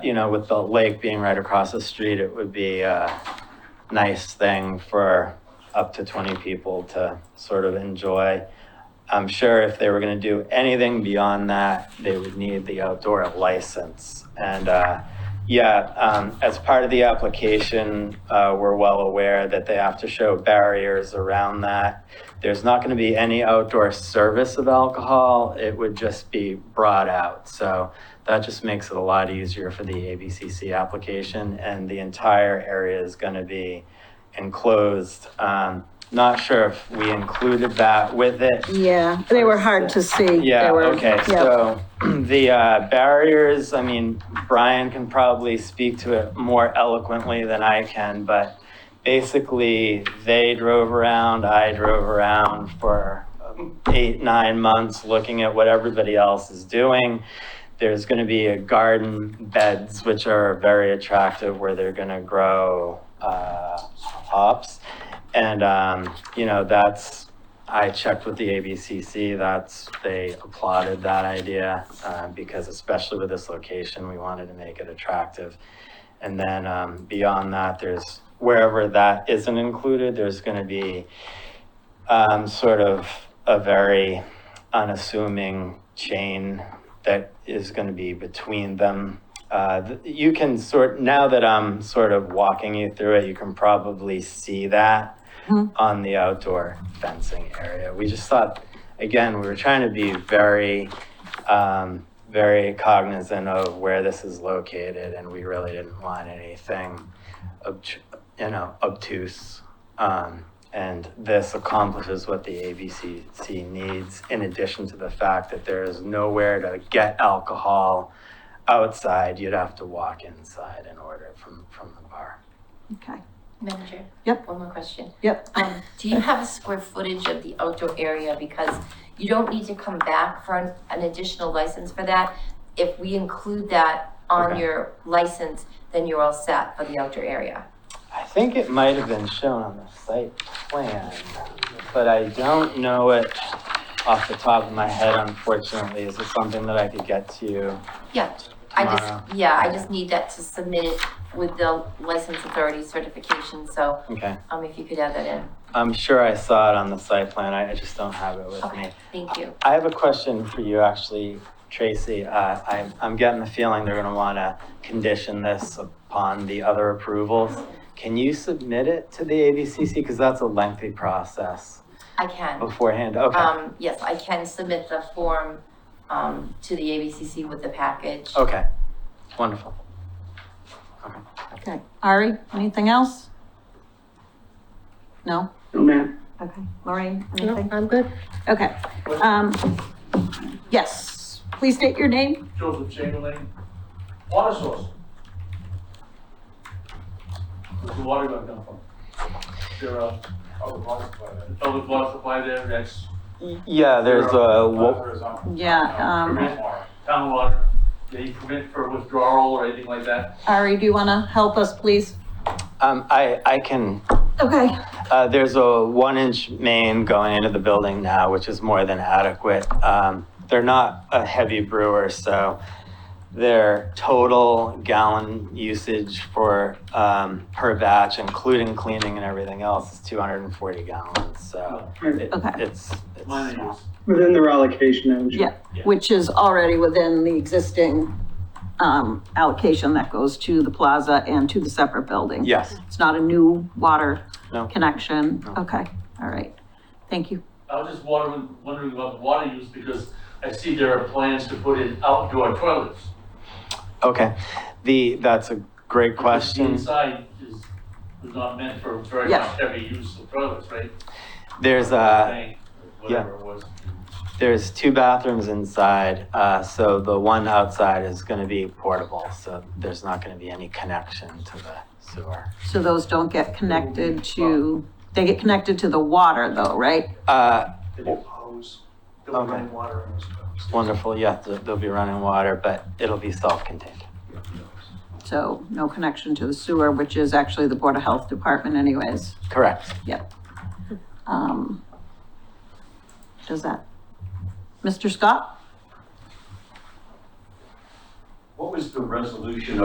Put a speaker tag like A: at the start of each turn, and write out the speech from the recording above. A: you know, with the lake being right across the street, it would be a nice thing for up to 20 people to sort of enjoy. I'm sure if they were going to do anything beyond that, they would need the outdoor license. And uh, yeah, um, as part of the application, uh, we're well aware that they have to show barriers around that. There's not going to be any outdoor service of alcohol. It would just be brought out. So that just makes it a lot easier for the ABCC application. And the entire area is going to be enclosed. Um, not sure if we included that with it.
B: Yeah, they were hard to see.
A: Yeah,
B: They were-
A: okay,
B: yeah.
A: so the uh, barriers, I mean, Brian can probably speak to it more eloquently than I can, but basically, they drove around, I drove around for um, eight, nine months, looking at what everybody else is doing. There's gonna be a garden beds, which are very attractive, where they're gonna grow uh, hops. And, um, you know, that's I checked with the ABCC, that's, they applauded that idea, uh, because especially with this location, we wanted to make it attractive. And then, um, beyond that, there's, wherever that isn't included, there's gonna be, um, sort of a very unassuming chain that is gonna be between them. Uh, th- you can sort, now that I'm sort of walking you through it, you can probably see that on the outdoor fencing area. We just thought, again, we were trying to be very, um, very cognizant of where this is located, and we really didn't want anything, obt- you know, obtuse. Um, and this accomplishes what the ABCC needs, in addition to the fact that there is nowhere to get alcohol outside. You'd have to walk inside and order it from, from the bar.
B: Okay.
C: Madam Chair?
B: Yep.
C: One more question.
B: Yep.
C: Um, do you have a square footage of the outdoor area? Because you don't need to come back for an, an additional license for that. If we include that on
A: Okay.
C: your license, then you're all set for the outdoor area.
A: I think it might have been shown on the site plan, but I don't know it off the top of my head, unfortunately. Is it something that I could get to you?
C: Yeah, I
A: Tomorrow.
C: just, yeah, I just need that to submit it with the license authority certification, so,
A: Okay,
C: um, if you could add that in.
A: I'm sure I saw it on the site plan, I I just don't have it with me.
C: Okay, thank you.
A: I have a question for you, actually, Tracy. Uh, I, I'm getting the feeling they're gonna wanna condition this upon the other approvals. Can you submit it to the ABCC? Because that's a lengthy process
C: I can.
A: beforehand. Okay,
C: Um, yes, I can submit the form, um, to the ABCC with the package.
A: okay, wonderful.
B: Okay. Ari, anything else? No?
D: No, ma'am.
B: Okay. Lorraine,
E: No,
B: anything?
E: I'm good.
B: Okay. Um, yes, please state your name.
D: Joseph Chamberlain, water source. Where's the water gonna come from? Is there a? Public water supply there. Public water supply there, that's.
A: Yeah, there's uh, a, wa-
D: Horizontal.
B: Yeah, um,
D: Permit water, Town water, they permit for withdrawal or anything like that?
B: Ari, do you want to help us, please?
A: um, I, I can,
B: Okay.
A: uh, there's a one inch main going into the building now, which is more than adequate. Um, they're not a heavy brewer, so their total gallon usage for, um, per batch, including cleaning and everything else, is two hundred and forty gallons, so it-
B: Okay.
A: it's, it's
D: Mine is.
F: Within their allocation, Madam Chair.
B: Yeah, which is already within the existing, um, allocation that goes to the plaza and to the separate building.
A: Yes,
B: It's not a new water
A: no,
B: connection.
A: No.
B: Okay, all right. Thank you.
D: I was just wondering, wondering about the water use because I see there are plans to put in outdoor toilets.
A: okay. The, that's a great question.
D: Inside is, is not meant for very
B: Yeah.
D: much heavy use of toilets, right?
A: There's a,
D: Tank, Whatever it was.
A: There's two bathrooms inside, uh, so the one outside is gonna be portable, so there's not gonna be any connection to the sewer.
B: So those don't get connected to, they get connected to the water though, right?
A: Uh,
G: They do hose, they'll
A: Okay.
G: run water in those hoses.
A: wonderful, yeah, th- there'll be running water, but it'll be self-contained.
B: So no connection to the sewer, which is actually the Board of Health Department anyways.
A: Correct.
B: Um, Does that, Mr. Scott?
H: What was the resolution